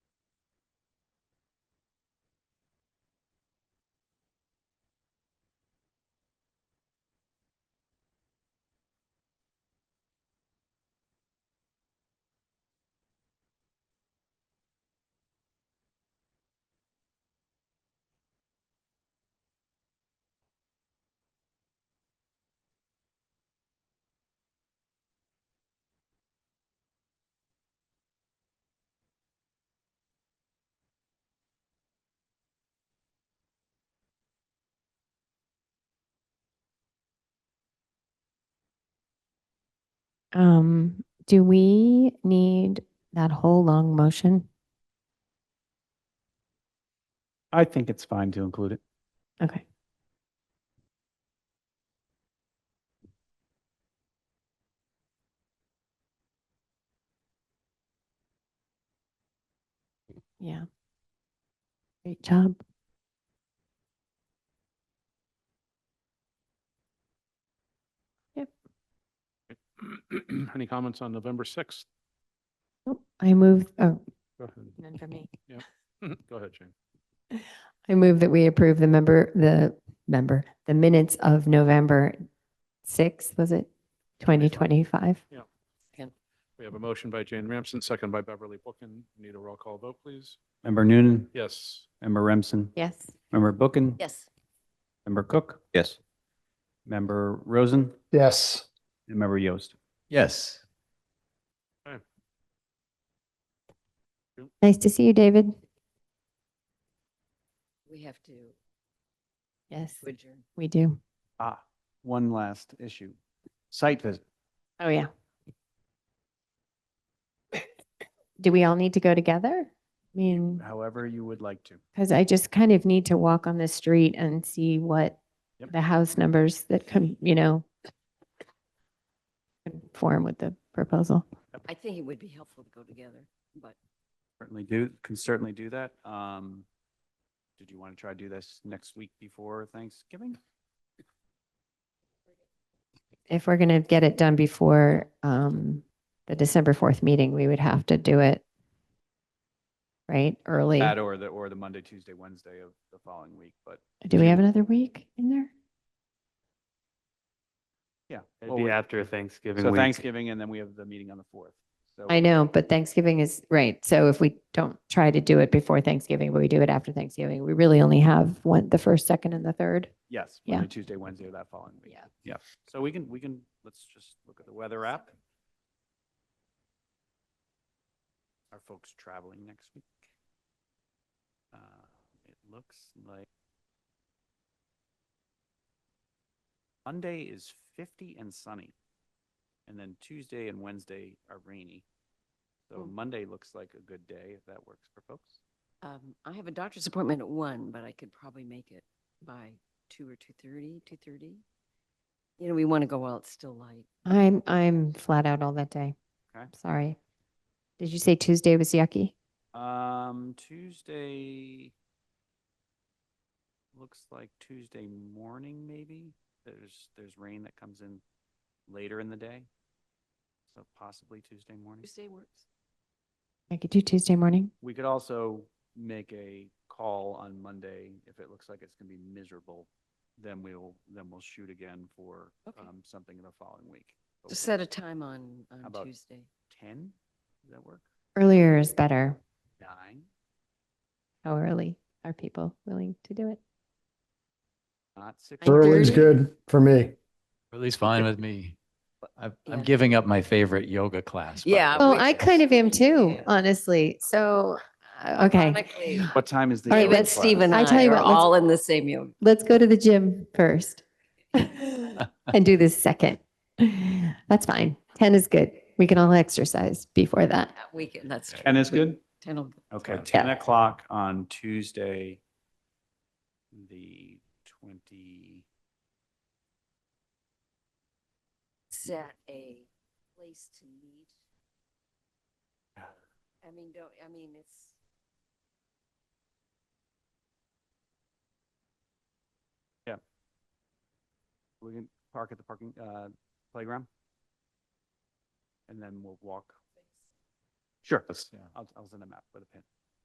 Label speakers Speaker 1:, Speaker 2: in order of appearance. Speaker 1: Um, do we need that whole long motion?
Speaker 2: I think it's fine to include it.
Speaker 1: Okay. Yeah. Great job.
Speaker 3: Any comments on November sixth?
Speaker 1: Oh, I move, oh,
Speaker 3: Go ahead.
Speaker 1: none for me.
Speaker 2: Mm-hmm.
Speaker 3: Go ahead, Jane.
Speaker 1: I move that we approve the member, the member, the minutes of November 6th, was it? 2025?
Speaker 3: We have a motion by Jane Ramsden, second by Beverly Bookin. Need a roll call vote, please?
Speaker 2: Member Noonan,
Speaker 3: Yes.
Speaker 2: member Remsen,
Speaker 1: Yes.
Speaker 2: member Bookin,
Speaker 4: Yes.
Speaker 2: member Cook,
Speaker 5: Yes.
Speaker 2: member Rosen,
Speaker 6: Yes.
Speaker 2: and member Yost.
Speaker 5: Yes.
Speaker 1: Nice to see you, David.
Speaker 4: We have to
Speaker 1: Yes,
Speaker 4: adjourn.
Speaker 1: we do.
Speaker 2: Ah, one last issue. Site visit.
Speaker 1: Oh, yeah. Do we all need to go together? I mean,
Speaker 2: However you would like to.
Speaker 1: because I just kind of need to walk on the street and see what
Speaker 2: Yep.
Speaker 1: the house numbers that come, you know, conform with the proposal.
Speaker 4: I think it would be helpful to go together, but
Speaker 2: Certainly do, can certainly do that. Um, did you want to try to do this next week before Thanksgiving?
Speaker 1: If we're going to get it done before um, the December 4th meeting, we would have to do it right, early.
Speaker 2: That or the, or the Monday, Tuesday, Wednesday of the following week, but
Speaker 1: Do we have another week in there?
Speaker 2: yeah.
Speaker 7: It'd
Speaker 2: well,
Speaker 7: be
Speaker 2: we-
Speaker 7: after Thanksgiving
Speaker 2: So
Speaker 7: week.
Speaker 2: Thanksgiving and then we have the meeting on the fourth. So
Speaker 1: I know, but Thanksgiving is, right, so if we don't try to do it before Thanksgiving, but we do it after Thanksgiving, we really only have one, the first, second, and the third.
Speaker 2: Yes,
Speaker 1: Yeah.
Speaker 2: Monday, Tuesday, Wednesday of that following week.
Speaker 4: Yeah.
Speaker 2: Yeah. So we can, we can, let's just look at the weather app. Are folks traveling next week? Uh, It looks like Monday is 50 and sunny. And then Tuesday and Wednesday are rainy. So Monday looks like a good day if that works for folks.
Speaker 4: um, I have a doctor's appointment at one, but I could probably make it by two or two thirty, two thirty. You know, we want to go while it's still light.
Speaker 1: I'm, I'm flat out all that day.
Speaker 2: Okay.
Speaker 1: Sorry. Did you say Tuesday was yucky?
Speaker 2: Um, Tuesday. Looks like Tuesday morning, maybe. There's, there's rain that comes in later in the day. So possibly Tuesday morning.
Speaker 4: Tuesday works.
Speaker 1: I could do Tuesday morning.
Speaker 2: We could also make a call on Monday. If it looks like it's gonna be miserable, then we'll, then we'll shoot again for,
Speaker 4: Okay.
Speaker 2: um, something in the following week. But
Speaker 4: Just
Speaker 2: we'll-
Speaker 4: set a time on,
Speaker 2: How
Speaker 4: on
Speaker 2: about-
Speaker 4: Tuesday.
Speaker 2: Ten? Does that work?
Speaker 1: Earlier is better.
Speaker 2: Nine?
Speaker 1: How early are people willing to do it?
Speaker 2: Not six?
Speaker 4: Nine
Speaker 6: Early's
Speaker 4: thirty.
Speaker 6: good for me.
Speaker 5: At least fine with me. I'm, I'm
Speaker 4: Yeah.
Speaker 5: giving up my favorite yoga class. by the
Speaker 4: Yeah,
Speaker 5: way.
Speaker 2: Oh,
Speaker 1: Well, I kind of am too,
Speaker 4: Yeah.
Speaker 1: honestly, so, uh, okay.
Speaker 4: Ironically,
Speaker 2: What time is the?
Speaker 1: All right,
Speaker 2: yoga
Speaker 4: David,
Speaker 1: let's-
Speaker 2: class?
Speaker 4: Steve and
Speaker 1: I tell
Speaker 4: I
Speaker 1: you
Speaker 4: are
Speaker 1: what, let's-
Speaker 4: all in the same yoga.
Speaker 1: Let's go to the gym first. and do this second. That's fine. 10 is good. We can all exercise before that.
Speaker 4: That weekend, that's.
Speaker 2: Ten is good?
Speaker 4: Ten will-
Speaker 2: Okay,
Speaker 5: Right.
Speaker 2: ten o'clock on Tuesday, the twenty,
Speaker 4: set a place to meet. I mean, don't, I mean, it's.
Speaker 2: we can park at the parking, uh, playground. And then we'll walk. Sure, let's- I'll, I'll send them out with a pin.